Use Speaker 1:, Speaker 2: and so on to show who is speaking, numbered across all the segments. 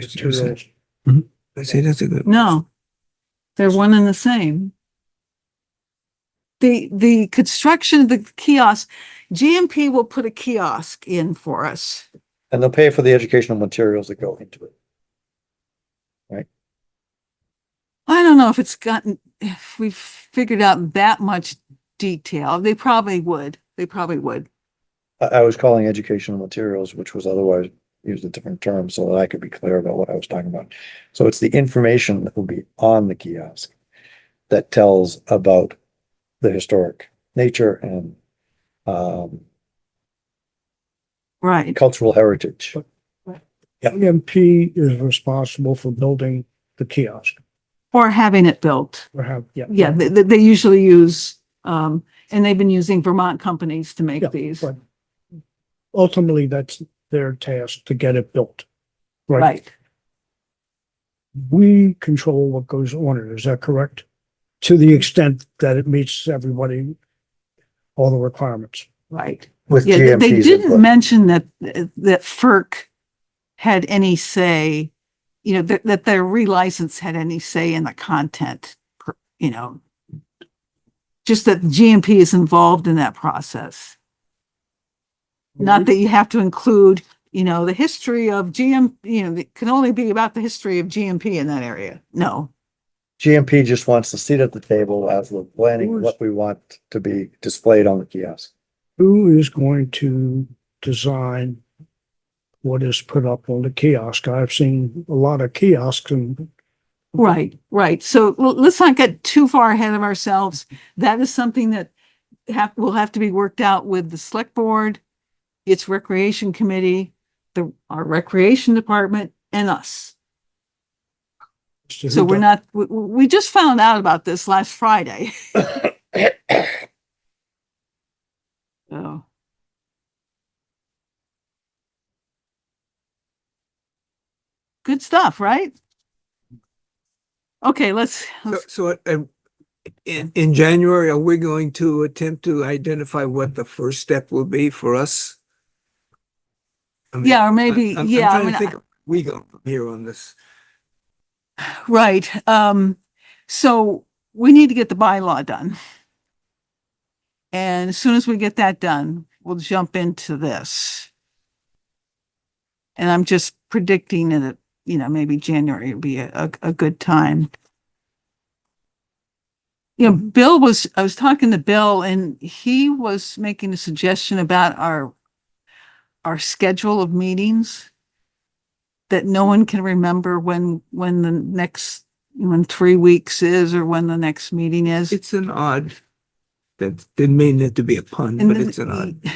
Speaker 1: Two roles.
Speaker 2: Mhm.
Speaker 1: I say that's a good.
Speaker 3: No. They're one and the same. The, the construction of the kiosk, GMP will put a kiosk in for us.
Speaker 2: And they'll pay for the educational materials that go into it.
Speaker 3: I don't know if it's gotten, if we've figured out that much detail. They probably would. They probably would.
Speaker 2: I, I was calling educational materials, which was otherwise used a different term so that I could be clear about what I was talking about. So it's the information that will be on the kiosk that tells about the historic nature and um,
Speaker 3: Right.
Speaker 2: cultural heritage. Yeah.
Speaker 1: EMP E is responsible for building the kiosk
Speaker 3: Or having it built.
Speaker 1: or have, yeah.
Speaker 3: Yeah, they, they they usually use, um, and they've been using Vermont companies to
Speaker 1: Yeah,
Speaker 3: make these.
Speaker 1: but Ultimately, that's their task to get it built. Right?
Speaker 3: Right.
Speaker 1: We control what goes on it. Is that correct? To the extent that it meets everybody, all the requirements.
Speaker 3: Right.
Speaker 2: With
Speaker 3: Yeah, they- they
Speaker 2: GMPs
Speaker 3: didn't
Speaker 2: input.
Speaker 3: mention that, that FERC had any say, you know, that, that their relicense had any say in the content, per- you know. Just that GMP is involved in that process. Not
Speaker 1: Mm-hmm.
Speaker 3: that you have to include, you know, the history of GM, you know, it can only be about the history of GMP in that area. No,
Speaker 2: GMP just wants a seat at the table as we're planning what we want to be displayed on the kiosk.
Speaker 1: Who is going to design what is put up on the kiosk? I've seen a lot of kiosks and
Speaker 3: Right, right. So l- let's not get too far ahead of ourselves. That is something that have, will have to be worked out with the select board, its recreation committee, the, our recreation department and us. So we're not, we, we we just found out about this last Friday. So. Good stuff, right? Okay, let's,
Speaker 4: So,
Speaker 3: let's
Speaker 4: so, um, in, in January, are we going to attempt to identify what the first step will be for us? I mean,
Speaker 3: Yeah, or
Speaker 4: I-
Speaker 3: maybe,
Speaker 4: I'm- I'm
Speaker 3: yeah, I
Speaker 4: trying
Speaker 3: mean,
Speaker 4: to think of where We go from here on this.
Speaker 3: right. Um, so we need to get the bylaw done. And as soon as we get that done, we'll jump into this. And I'm just predicting that, you know, maybe January would be a, a, a good time. You know, Bill was, I was talking to Bill and he was making a suggestion about our, our schedule of meetings that no one can remember when, when the next, when three weeks is or when the next meeting is.
Speaker 4: It's an odd, that didn't mean it to be a pun,
Speaker 3: And
Speaker 4: but
Speaker 3: then-
Speaker 4: it's an odd.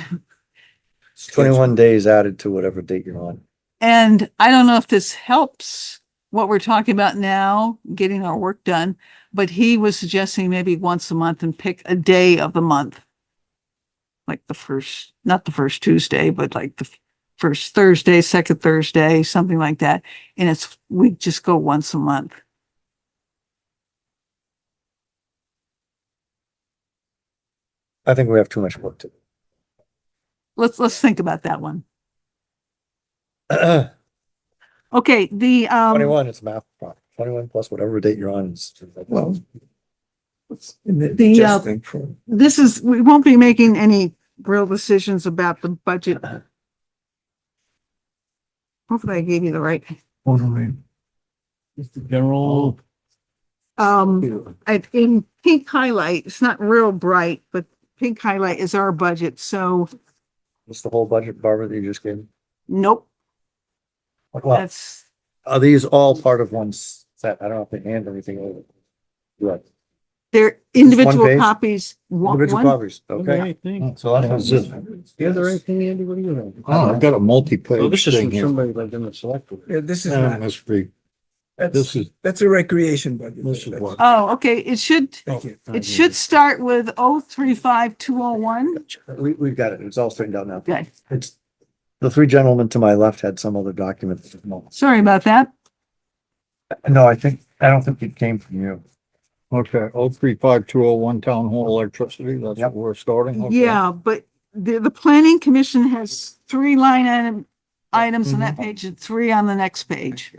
Speaker 2: Twenty-one days added to whatever date you're on.
Speaker 3: And I don't know if this helps what we're talking about now, getting our work done, but he was suggesting maybe once a month and pick a day of the month. Like the first, not the first Tuesday, but like the first Thursday, second Thursday, something like that. And it's, we just go once a month.
Speaker 2: I think we have too much work to do.
Speaker 3: Let's, let's think about that one.
Speaker 5: Um,
Speaker 3: Okay, the, um.
Speaker 2: Twenty-one, it's a math problem. Twenty-one plus whatever date you're on is.
Speaker 4: Well.
Speaker 3: The, uh,
Speaker 4: Adjusting for-
Speaker 3: this is, we won't be making any real decisions about the budget. Hopefully I gave you the right,
Speaker 6: Just the general,
Speaker 3: um, I, in pink highlight, it's not real bright, but pink highlight is our budget, so
Speaker 2: It's the whole budget, Barbara, that you just gave. me?
Speaker 3: nope,
Speaker 2: Well,
Speaker 3: that's,
Speaker 2: are these all part of one s- set? I don't know if they hand anything over. Right.
Speaker 3: they're
Speaker 2: Just one
Speaker 3: individual
Speaker 2: page?
Speaker 3: copies. One-
Speaker 2: Individual
Speaker 3: one-
Speaker 2: copies, okay?
Speaker 6: okay, thanks.
Speaker 2: So that was it.
Speaker 6: Is there anything, Andy, what do you know?
Speaker 5: Oh, I've got a
Speaker 6: Well,
Speaker 5: multi-page
Speaker 6: this is
Speaker 5: thing
Speaker 6: from
Speaker 5: here.
Speaker 6: somebody like in the select board.
Speaker 4: Yeah, this is
Speaker 5: Yeah,
Speaker 4: not,
Speaker 5: Must be,
Speaker 4: that's,
Speaker 5: this is,
Speaker 4: that's a recreation budget.
Speaker 5: this is
Speaker 4: That's-
Speaker 5: what.
Speaker 3: Oh, okay, it should,
Speaker 4: Thank you.
Speaker 3: it should start with oh three five two oh one.
Speaker 2: We, we've got it. It's all straightened out now.
Speaker 3: Okay,
Speaker 2: It's, the three gentlemen to my left had some other document.
Speaker 3: sorry about that.
Speaker 2: No, I think, I don't think it came from you.
Speaker 5: Okay, oh, three, five, two, oh, one, town hall electricity, that's
Speaker 2: Yep.
Speaker 5: what we're starting. okay.
Speaker 3: Yeah, but the, the planning commission has three line item items on that
Speaker 5: Mhm.
Speaker 3: page and three on the next page.